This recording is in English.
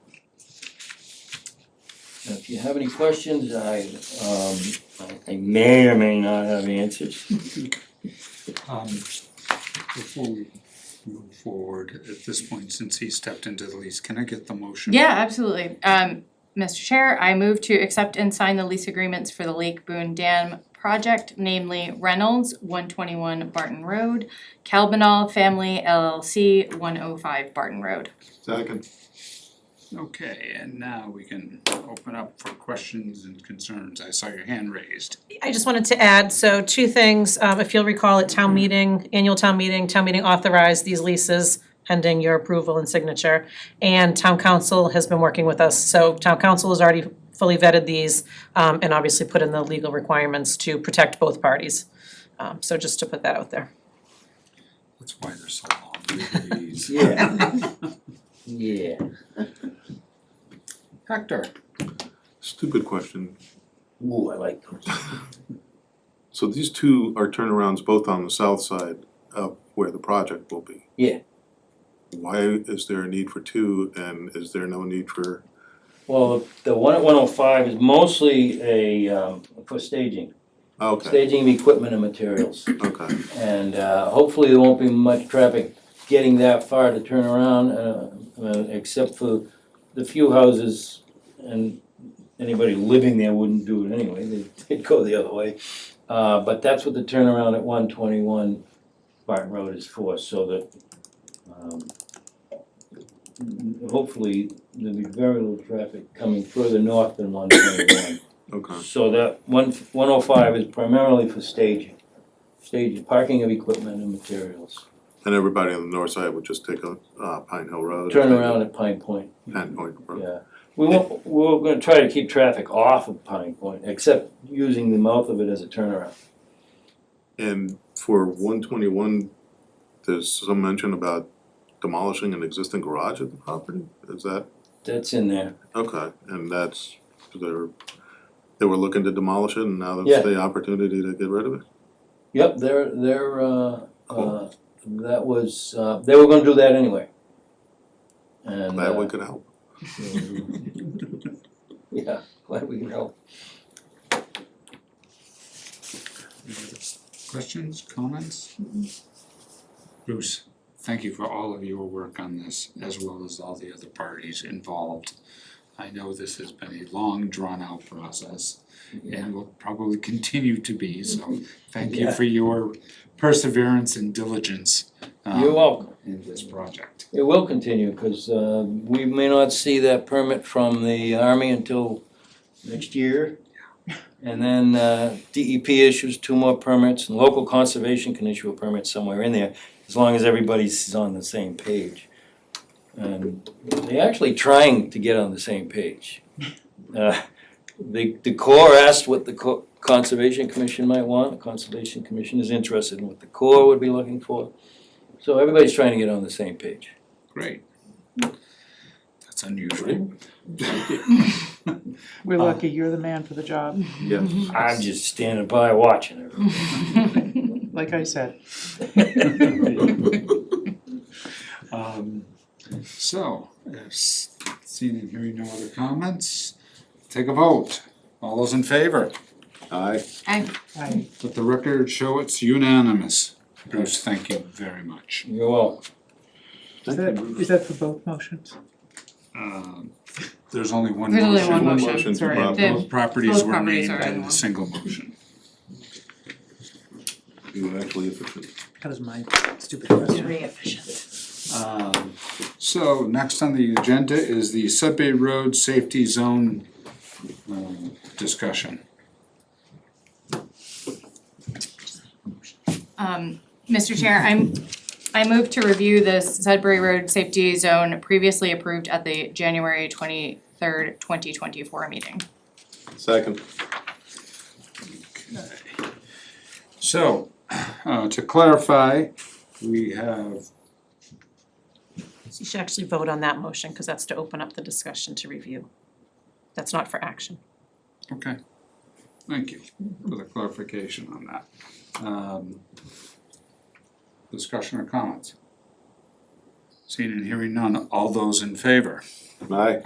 So if you have any questions, I, um, I may or may not have answers. Um, before we move forward, at this point, since he stepped into the lease, can I get the motion? Yeah, absolutely. Um, Mr. Chair, I move to accept and sign the lease agreements for the Lake Boone Dam project, namely Reynolds, one twenty-one Barton Road, Calbanal Family LLC, one oh five Barton Road. Second. Okay, and now we can open up for questions and concerns. I saw your hand raised. I just wanted to add, so two things, um, if you'll recall at town meeting, annual town meeting, town meeting authorized these leases pending your approval and signature, and town council has been working with us, so town council has already fully vetted these, um, and obviously put in the legal requirements to protect both parties. Um, so just to put that out there. That's why they're so long. These. Yeah. Yeah. Hector, Stupid question. Ooh, I like those. So these two are turnarounds both on the south side of where the project will be? Yeah. Why is there a need for two and is there no need for, Well, the- the one at one oh five is mostly a, um, for staging, oh, okay, staging of equipment and materials. okay, And uh, hopefully there won't be much traffic getting that far to turn around, uh, uh, except for the few houses and anybody living there wouldn't do it anyway, they'd- they'd go the other way. Uh, But that's what the turnaround at one twenty-one Barton Road is for, so that um, hopefully there'll be very little traffic coming further north than one twenty-one. okay. So that one, one oh five is primarily for staging, staging, parking of equipment and materials. And everybody on the north side would just take a, uh, Pine Hill Road? Turn around at Pine Point, Pine Point Road, yeah. We won't, we're gonna try to keep traffic off of Pine Point, except using the mouth of it as a turnaround. and for one twenty-one, there's some mention about demolishing an existing garage at the property, is that? That's in there. Okay, and that's, they're, they were looking to demolish it and now Yeah. that's the opportunity to get rid of it? Yep, they're, they're, uh, uh, Cool. that was, uh, they were gonna do that anyway. And, Glad we uh, could help. yeah, glad we can help. questions, comments? Bruce, thank you for all of your work on this, as well as all the other parties involved. I know this has been a long, drawn-out process, and will probably continue to be, so thank you Yeah. for your perseverance and diligence um, You're welcome. in this project. It will continue, because we may not see that permit from the Army until next year. And then uh, DEP issues two more permits, and local conservation can issue a permit somewhere in there, as long as everybody's on the same page. And they're actually trying to get on the same page. Uh, The the Corps asked what the Co- Conservation Commission might want, the Conservation Commission is interested in what the Corps would be looking for. So everybody's trying to get on the same page. Great. That's unusual. We're Uh, lucky, you're the man for the job, Yeah. I'm just standing by watching like I said. it. Um, so, if s- seeing and hearing no other comments, take a vote. All those in favor? Aye. I, Let the record show it's unanimous. Bruce, thank you very much. You're welcome. is that, is that for both motions? Um, There's only one There's motion. only one motion. Motion to Sorry. Bob. Dave. Both properties Both were properties made are in in a one. single motion. You were actually efficient. That was my stupid question. Um, So next on the agenda is the Sudbury Road Safety Zone um, discussion. Um, Mr. Chair, I'm, I move to review the Sudbury Road Safety Zone previously approved at the January twenty-third, twenty twenty-four meeting. Second. So, uh, to clarify, we have, So you should actually vote on that motion, cause that's to open up the discussion to review. That's not for action. okay, thank you for the clarification on that. Um, Discussion or comments? Seeing and hearing none, all those in favor? Aye.